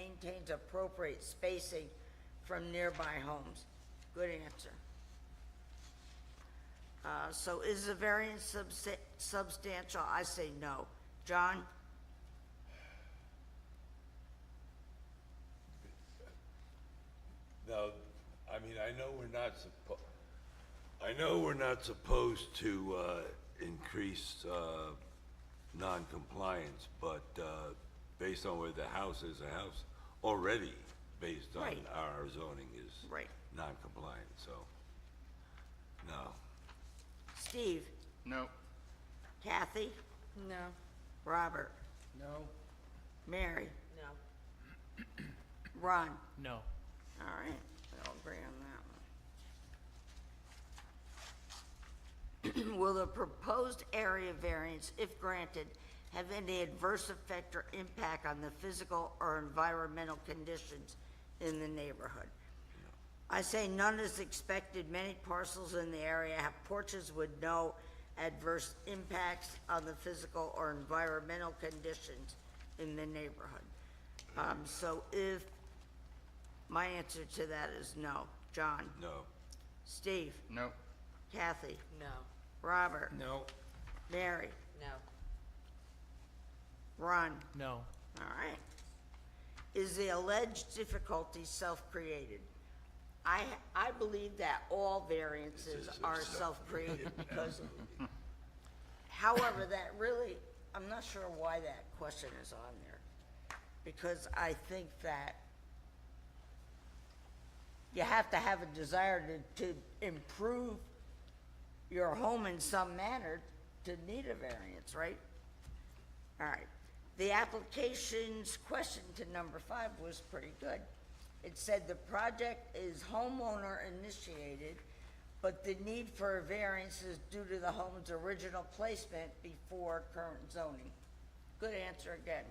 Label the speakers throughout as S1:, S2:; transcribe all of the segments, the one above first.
S1: maintains appropriate spacing from nearby homes? Good answer. Uh, so is the variance subs- substantial? I say no. John?
S2: Now, I mean, I know we're not suppo, I know we're not supposed to, uh, increase, uh, non-compliance, but, uh, based on where the house is, the house already, based on
S1: Right.
S2: our zoning is
S1: Right.
S2: non-compliant, so, no.
S1: Steve?
S3: No.
S1: Kathy?
S4: No.
S1: Robert?
S3: No.
S1: Mary? No. Ron?
S5: No.
S1: All right, we'll agree on that one. Will the proposed area variance, if granted, have any adverse effect or impact on the physical or environmental conditions in the neighborhood? I say none is expected. Many parcels in the area have porches with no adverse impacts on the physical or environmental conditions in the neighborhood. Um, so if my answer to that is no. John?
S2: No,
S1: Steve?
S3: No.
S1: Kathy?
S4: No.
S1: Robert?
S3: No.
S1: Mary?
S4: No.
S1: Ron?
S5: No.
S1: All right. Is the alleged difficulty self-created? I, I believe that all variances are self-created because, however, that really, I'm not sure why that question is on there. Because I think that you have to have a desire to, to improve your home in some manner to need a variance, right? All right. The application's question to number five was pretty good. It said the project is homeowner initiated, but the need for a variance is due to the home's original placement before current zoning. Good answer again.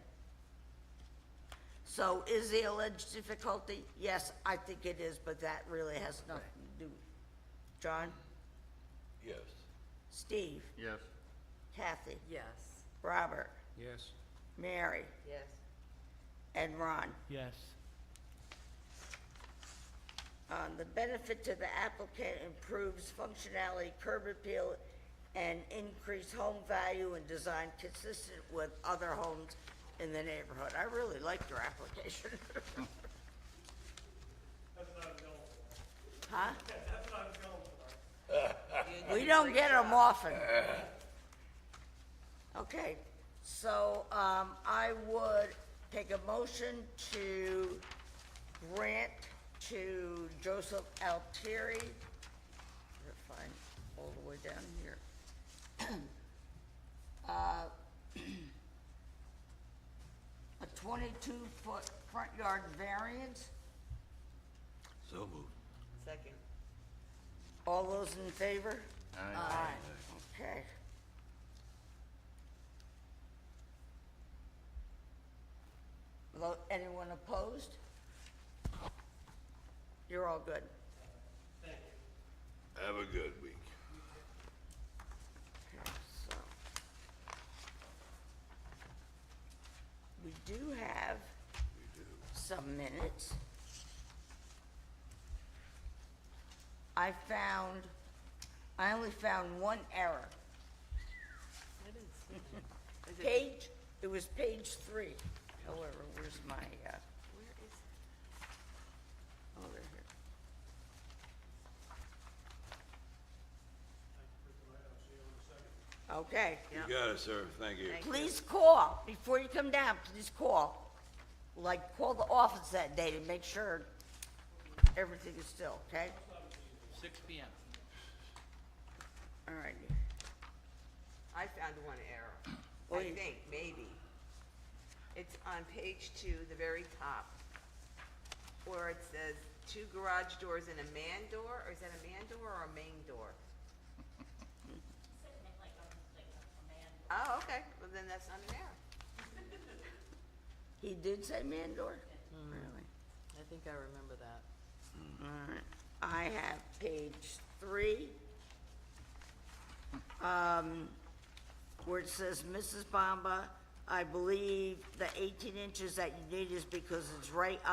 S1: So is the alleged difficulty? Yes, I think it is, but that really has nothing to do. John?
S2: yes,
S1: Steve?
S3: Yes.
S1: Kathy?
S4: Yes.
S1: Robert?
S3: Yes.
S1: Mary?
S4: Yes.
S1: And Ron?
S5: Yes.
S1: Um, the benefit to the applicant improves functionality, curb appeal, and increased home value and design consistent with other homes in the neighborhood. I really liked your application. Huh? We don't get them often. Okay, so, um, I would take a motion to grant to Joseph Altieri. If I'm all the way down here. Uh, A twenty-two foot front yard variance.
S2: so moved.
S4: Second.
S1: All those in favor?
S3: Aye.
S1: Okay. Lo- Anyone opposed? You're all good.
S2: Have a good week.
S1: Okay, so. We do have some minutes. I found, I only found one error. Page, it was page three. However, where's my, uh,
S4: Where is
S1: oh, they're here. Okay.
S2: You got it, sir, thank you.
S1: Please call, before you come down, please call. Like, call the office that day to make sure everything is still, okay?
S5: Six PM.
S1: All right.
S6: I found one error,
S1: Oh,
S6: I
S1: you-
S6: think, maybe. It's on page two, the very top, where it says two garage doors and a man door, or is that a man door or a main door? Oh, okay, well then that's not an error.
S1: He did say Mandor? Really?
S4: Hmm. I think I remember that.
S1: All right. I have page three. Um, where it says Mrs. Bamba I believe the eighteen inches that you need is because it's right